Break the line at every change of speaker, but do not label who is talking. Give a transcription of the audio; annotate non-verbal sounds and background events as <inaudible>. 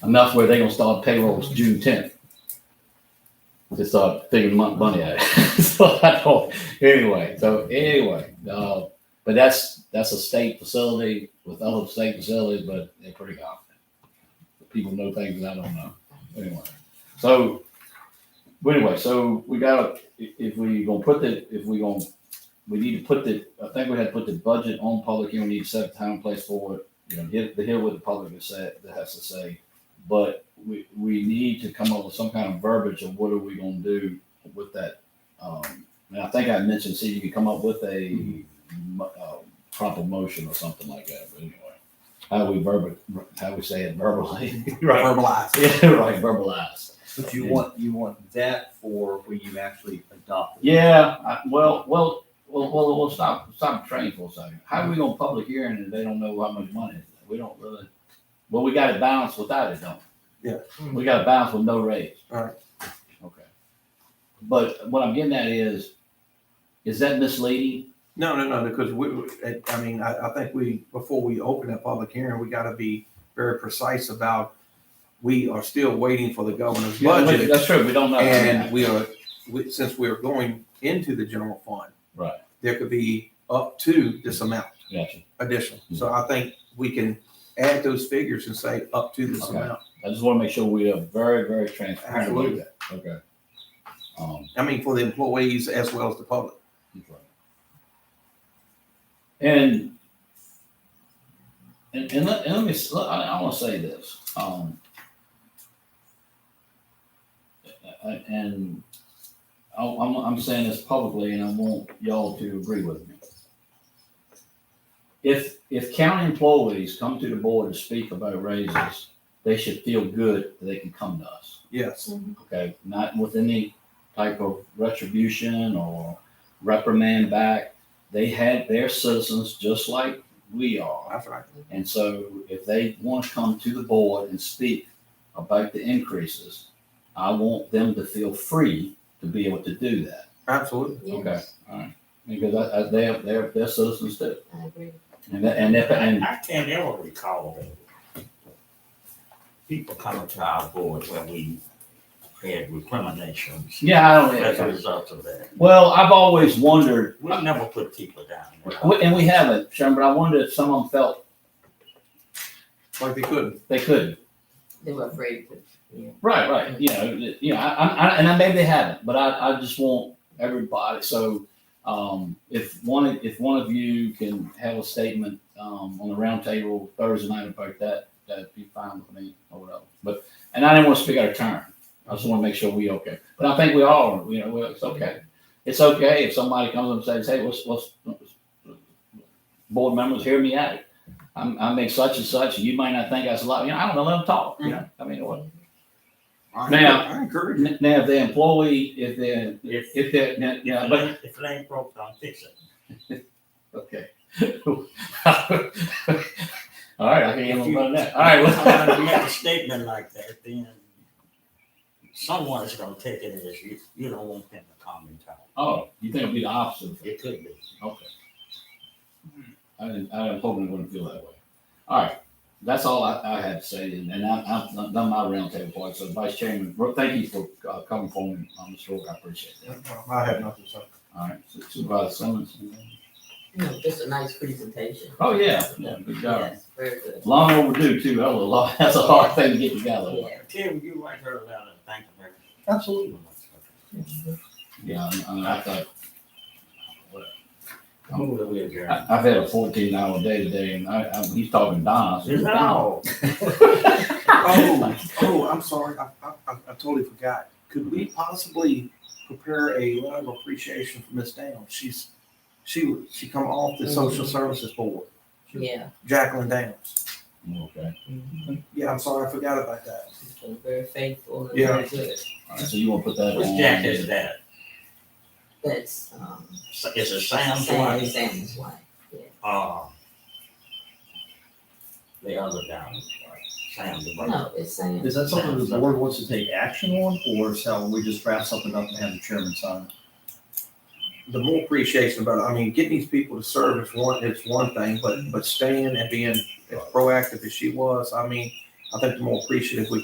enough where they gonna start payrolls June tenth. To start figuring mon- money out. <laughs> so I don't, anyway, so anyway, uh, but that's that's a state facility with other state facilities, but they're pretty confident. People know things that I don't know. Anyway, so but anyway, so we gotta i- if we gonna put the if we gonna we need to put the I think we had to put the budget on public and we need to set a time and place for it. You know, hear, to hear what the public has said that has to say but we, we need to come up with some kind of verbiage of what are we gonna do with that. Um, and I think I mentioned, see, you can come up with a mo- uh, proper motion or something like that, but anyway. How we verbal, how we say it verbally. <laughs>
Verbalize.
Yeah, right, verbalized.
But you want, you want that for when you actually adopt it.
Yeah, I, well, well, well, well, well, stop, stop the train for a second. How are we gonna public hearing if they don't know how much money? it is? We don't really, well, we gotta balance without it, don't we?
Yeah.
We gotta balance with no raise.
Alright.
Okay. But what I'm getting at is, is that misleading?
No, no, no, because we, we- I- I mean, I, I think we, before we open that public hearing, we gotta be very precise about, we are still waiting for the governor's budget.
That's true, we don't know.
And we are, we- since we're going into the general fund.
Right.
There could be up to this amount
Gotcha.
additional.
Mm-hmm.
So I think we can add those figures and say up to this
Okay.
amount.
I just wanna make sure we are very, very transparent about
Absolutely.
that. Okay. Um,
I mean, for the employees as well as the public.
And and and let, and let me s- let- I, I want to say this. Um, I- I- and I, I'm I'm saying this publicly, and I want y'all to agree with me. If if county employees come to the board to speak about raises, they should feel good that they can come to us
Yes.
okay, not with any type of retribution or reprimand back. They had their citizens just like we are.
That's right.
And so if they want to come to the board and speak about the increases, I want them to feel free to be able to do that.
Absolutely.
Okay, all right. Because I, I, they're, they're, they're citizens too.
I agree.
And that, and that, and
I can't ever recall people coming to our board when we had recriminations
Oh, yeah, I
as a
don't,
result of that.
well, I've always wondered
We never put people down.
We- And we haven't, Sharon, but I wondered if some of them felt
Like they couldn't.
they couldn't.
They were afraid to.
Right, right. You know, you know, I, I, I- and I maybe they haven't, but I, I just want everybody. So, um, if one, of- if one of you can have a statement, um, on the roundtable Thursday night about that, that'd be fine with me or whatever. But, and I didn't want to speak out of turn. I just want to make sure we okay. But I think we all, you know, we're- it's okay. It's okay if somebody comes up and says, hey, what's, what's, board members, hear me out. I'm, I make such and such, and you might not think that's a lot. You know, I don't know, let them talk. You know, I mean, what?
I-
Now-
I encourage you.
N- Now, if they're employee, if they're,
If,
if they're, now- yeah,
if
but,
it- if it ain't broke, don't fix it.
okay. <laughs> All right, I can handle
If you-
none of that. All right, well,
If you make a statement like that, then someone's gonna take it as you, you don't want them to comment on.
<laughs> oh, you think it'd be the opposite?
It could be.
Okay. I didn't, I didn't hope it wouldn't feel that way. All right, that's all I, I had to say, and and I, I've done done my roundtable part, so Vice Chairman, Brooke, thank you for uh, coming for me on this road, I appreciate that.
I have nothing to say.
All right, Supervisor Simmons.
You know, just a nice presentation.
Oh, yeah, yeah, good job.
Yes, Very good.
Long overdue too, that was a lot, <laughs> that's a hard thing to get together.
Yeah.
Tim, you write her a letter, thank you very much.
Absolutely.
Yeah, I, I, I thought,
I Move that we adjourn.
I, I've had a fourteen hour day today and I, I, he's talking Donna. so-
Is that all?
Oh, oh, I'm sorry. I, I, I I totally forgot. Could we possibly prepare a letter of appreciation for Miss Downs? She's, she, she come off the social services board,
Yeah.
Jacqueline Downs.
Okay,
Yeah, I'm sorry. I forgot about that.
She's been very faithful and
Yeah.
very good.
all right, so you wanna put that
Which
on?
Jack is that?
That's, um,
S- Is it Sam's
Sam,
wife?
Sam's wife.
Uh, the other down, right? Sam the brother.
No, it's Sam.
Is that something the board wants to take action on, or shall we just draft something up and have the chairman sign it?
the more appreciation about it. I mean, getting these people to serve is one is one thing, but but staying and being as proactive as she was, I mean, I think the more appreciative we